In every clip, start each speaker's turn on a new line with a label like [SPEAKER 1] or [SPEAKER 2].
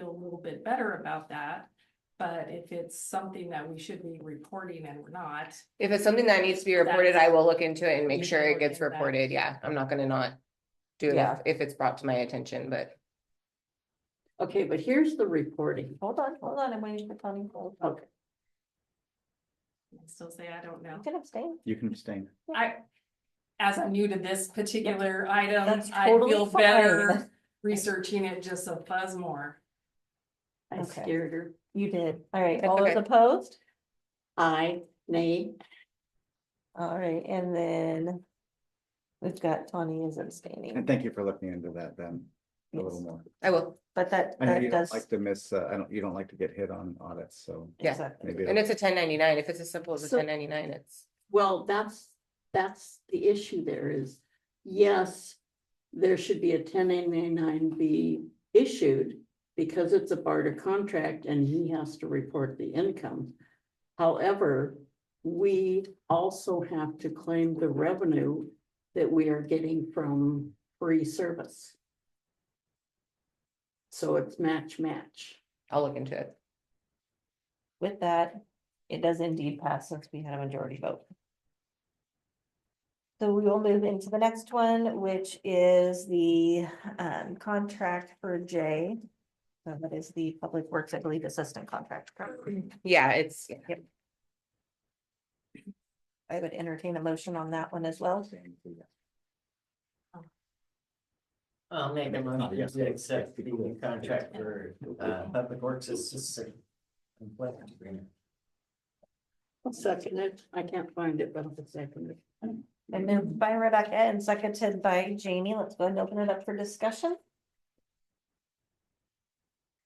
[SPEAKER 1] little bit better about that. But if it's something that we should be reporting and we're not,
[SPEAKER 2] If it's something that needs to be reported, I
[SPEAKER 1] That's-
[SPEAKER 2] will look into it and
[SPEAKER 1] You
[SPEAKER 2] make
[SPEAKER 1] can
[SPEAKER 2] sure it
[SPEAKER 1] look
[SPEAKER 2] gets
[SPEAKER 1] into that.
[SPEAKER 2] reported. Yeah, I'm not gonna not do it
[SPEAKER 3] Yeah.
[SPEAKER 2] if- if it's brought to my attention, but.
[SPEAKER 3] Okay, but here's the reporting.
[SPEAKER 4] Hold on, hold on, I'm waiting for Tony. Hold on.
[SPEAKER 3] Okay,
[SPEAKER 1] I still say I don't know.
[SPEAKER 4] You can abstain.
[SPEAKER 5] You can abstain.
[SPEAKER 1] I, as I'm new to this particular item,
[SPEAKER 4] That's
[SPEAKER 1] I
[SPEAKER 4] totally
[SPEAKER 1] feel
[SPEAKER 4] fine.
[SPEAKER 1] better researching it just a fuzz more.
[SPEAKER 3] I
[SPEAKER 4] Okay.
[SPEAKER 3] scared her.
[SPEAKER 4] You did. All right,
[SPEAKER 2] That's
[SPEAKER 4] all those
[SPEAKER 2] okay.
[SPEAKER 4] opposed?
[SPEAKER 3] I, nay,
[SPEAKER 4] All right, and then we've got Tony is abstaining.
[SPEAKER 5] And thank you for looking into that then a little
[SPEAKER 4] Yes.
[SPEAKER 5] more.
[SPEAKER 2] I will,
[SPEAKER 4] But that,
[SPEAKER 5] I know
[SPEAKER 4] that
[SPEAKER 5] you don't
[SPEAKER 4] does,
[SPEAKER 5] like to miss, uh, I don't, you don't like to get hit on audits, so
[SPEAKER 2] Yeah.
[SPEAKER 4] exactly.
[SPEAKER 5] maybe.
[SPEAKER 2] and it's a ten ninety-nine. If it's as simple as a
[SPEAKER 3] So-
[SPEAKER 2] ten ninety-nine, it's,
[SPEAKER 3] well, that's, that's the issue there is, yes. There should be a ten ninety-nine be issued because it's a barter contract and he has to report the income. However, we also have to claim the revenue that we are getting from free service. So it's match, match.
[SPEAKER 2] I'll look into it.
[SPEAKER 4] With that, it does indeed pass since we had a majority vote. So we will move into the next one, which is the um contract for Jay. So that is the Public Works, I believe, assistant contract. correct?
[SPEAKER 2] Yeah, it's,
[SPEAKER 4] I would entertain a motion on that one as well.
[SPEAKER 6] I'll make a
[SPEAKER 5] Make- oh,
[SPEAKER 6] motion
[SPEAKER 5] yes,
[SPEAKER 6] to accept the
[SPEAKER 5] yes, yes.
[SPEAKER 6] contract for uh public works assistant. employment agreement.
[SPEAKER 3] I'll second it. I can't find it, but I'll second it.
[SPEAKER 4] And moved by Rebecca and seconded by Jamie. Let's go ahead and open it up for discussion.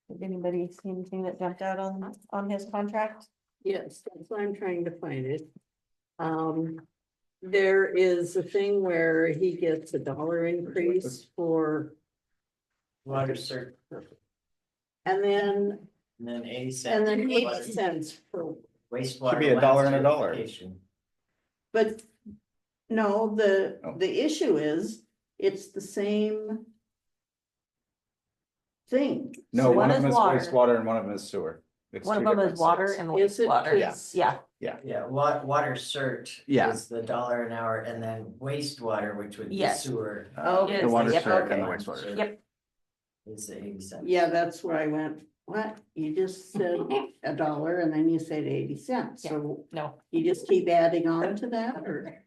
[SPEAKER 4] Did anybody see anything that jumped out on, on his contract?
[SPEAKER 3] Yes, that's why I'm trying to find it. Um, there is a thing where he gets a dollar increase for,
[SPEAKER 6] Water cert,
[SPEAKER 3] and then,
[SPEAKER 6] and then eighty cents.
[SPEAKER 3] and then E
[SPEAKER 6] water-
[SPEAKER 3] eighty cents for,
[SPEAKER 6] Wastewater.
[SPEAKER 5] Should be a
[SPEAKER 6] lab
[SPEAKER 5] dollar and a dollar.
[SPEAKER 6] certification.
[SPEAKER 3] but no, the,
[SPEAKER 5] Oh.
[SPEAKER 3] the issue is, it's the same thing.
[SPEAKER 5] No,
[SPEAKER 4] One
[SPEAKER 5] one of
[SPEAKER 4] is
[SPEAKER 5] them is
[SPEAKER 4] water.
[SPEAKER 5] wastewater and one of them is sewer. It's
[SPEAKER 4] One of
[SPEAKER 5] two
[SPEAKER 4] them is
[SPEAKER 5] different
[SPEAKER 4] water
[SPEAKER 5] sets.
[SPEAKER 4] and
[SPEAKER 3] Is it
[SPEAKER 4] wastewater.
[SPEAKER 3] is-
[SPEAKER 4] Yeah,
[SPEAKER 6] Yeah, wa- water cert.
[SPEAKER 5] Yeah.
[SPEAKER 6] Is the dollar an hour and then wastewater, which would be
[SPEAKER 4] Yes.
[SPEAKER 6] sewer.
[SPEAKER 3] Oh,
[SPEAKER 1] Yes.
[SPEAKER 5] The water
[SPEAKER 4] Yep.
[SPEAKER 5] cert and the
[SPEAKER 6] Okay.
[SPEAKER 5] wastewater.
[SPEAKER 4] yep.
[SPEAKER 6] Is E the eighty cents.
[SPEAKER 3] Yeah, that's where I went, what? You just said a dollar and then you said eighty cents,
[SPEAKER 4] Yeah.
[SPEAKER 3] so
[SPEAKER 4] No,
[SPEAKER 3] you just keep adding on to that or?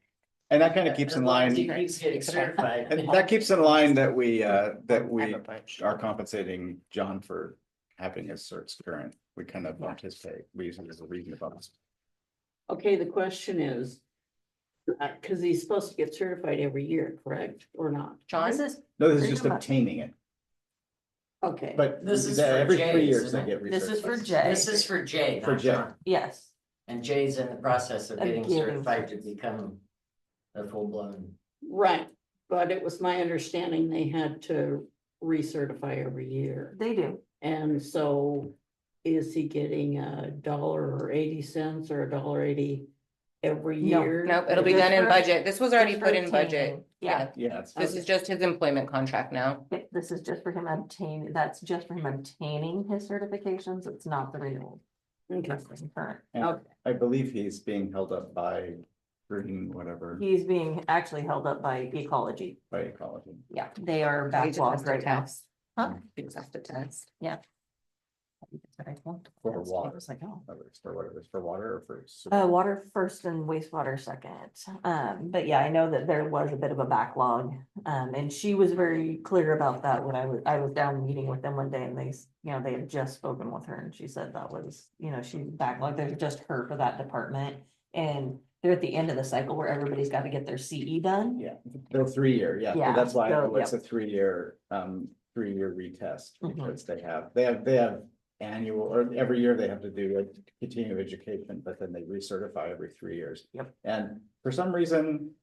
[SPEAKER 5] And that kind of keeps
[SPEAKER 6] As
[SPEAKER 5] in
[SPEAKER 6] long as
[SPEAKER 5] line,
[SPEAKER 6] He keeps getting certified.
[SPEAKER 5] and that keeps in line that we, uh, that
[SPEAKER 2] I have
[SPEAKER 5] we
[SPEAKER 2] a bunch.
[SPEAKER 5] are compensating John for having his certs current. We kind of bumped his pay. We use it as a reason to bump his
[SPEAKER 3] Okay, the question is. Uh, cause he's supposed to get certified every year, correct, or not?
[SPEAKER 2] John,
[SPEAKER 4] this is,
[SPEAKER 5] No, this is
[SPEAKER 4] Pretty
[SPEAKER 5] just
[SPEAKER 4] much.
[SPEAKER 5] obtaining it,
[SPEAKER 3] Okay,
[SPEAKER 5] but
[SPEAKER 6] This is
[SPEAKER 5] the-
[SPEAKER 6] for
[SPEAKER 5] every three
[SPEAKER 6] Jay's,
[SPEAKER 5] years they
[SPEAKER 6] isn't
[SPEAKER 5] get.
[SPEAKER 4] this is for
[SPEAKER 5] recertified.
[SPEAKER 4] Jay.
[SPEAKER 6] This is for Jay,
[SPEAKER 5] For
[SPEAKER 6] not
[SPEAKER 5] Jay.
[SPEAKER 6] John.
[SPEAKER 4] Yes,
[SPEAKER 6] And Jay's in the process of
[SPEAKER 4] Of
[SPEAKER 6] getting
[SPEAKER 4] getting
[SPEAKER 6] certified to become a full blown.
[SPEAKER 3] right, but it was my understanding they had to recertify every year.
[SPEAKER 4] they do.
[SPEAKER 3] And so is he getting a dollar or eighty cents or a dollar eighty every
[SPEAKER 4] No,
[SPEAKER 3] year?
[SPEAKER 2] nope, it'll be done in budget. This was already
[SPEAKER 4] Just
[SPEAKER 2] put in
[SPEAKER 4] rotating.
[SPEAKER 2] budget.
[SPEAKER 4] Yeah.
[SPEAKER 5] Yeah, it's-
[SPEAKER 2] This is just his employment contract now.
[SPEAKER 4] Yep, This is just for him obtaining, that's just for him obtaining his certifications. It's not the renewal.
[SPEAKER 3] Okay,
[SPEAKER 4] That's the current.
[SPEAKER 5] and
[SPEAKER 3] Okay.
[SPEAKER 5] I believe he's being held up by Green, whatever,
[SPEAKER 4] He's being actually held up by ecology.
[SPEAKER 5] by ecology.
[SPEAKER 4] Yeah, they are
[SPEAKER 2] He just has
[SPEAKER 4] backlogged
[SPEAKER 2] to
[SPEAKER 4] right now.
[SPEAKER 2] test.
[SPEAKER 4] Huh?
[SPEAKER 5] Mm.
[SPEAKER 2] He just has to test.
[SPEAKER 5] For
[SPEAKER 4] That's- I
[SPEAKER 5] water.
[SPEAKER 4] was like, oh.
[SPEAKER 5] Whether it's For whatever, for water or for. sewer.
[SPEAKER 4] Uh, water first and wastewater second. Um, but yeah, I know that there was a bit of a backlog. Um, and she was very clear about that when I was, I was down meeting with them one day and they, s- you know, they had just spoken with her and she said that was, you know, she's backlogged. There's just her for that department. And they're at the end of the cycle where everybody's got to get their CE done.
[SPEAKER 5] Yeah, they're three year, yeah,
[SPEAKER 4] Yeah,
[SPEAKER 5] so that's why
[SPEAKER 4] so,
[SPEAKER 5] it's a three year, um, three year retest,
[SPEAKER 4] Mhm.
[SPEAKER 5] because they have, they have, they have. Annual, or every year they have to do a continuing education, but then they recertify every three years.
[SPEAKER 4] Yep.
[SPEAKER 5] And for some reason,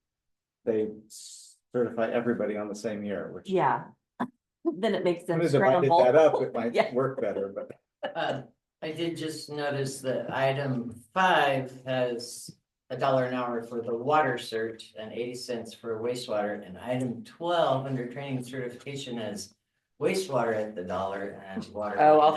[SPEAKER 5] they certify everybody on the same year, which.
[SPEAKER 4] Yeah. Then it makes
[SPEAKER 5] When
[SPEAKER 4] them
[SPEAKER 5] they divided that
[SPEAKER 4] scramble.
[SPEAKER 5] up, it might
[SPEAKER 4] Yeah.
[SPEAKER 5] work better, but
[SPEAKER 6] Uh, I did just notice that item five has a dollar an hour for the water cert and eighty cents for wastewater. And item twelve under training certification has wastewater at the dollar and water.
[SPEAKER 2] Oh, I'll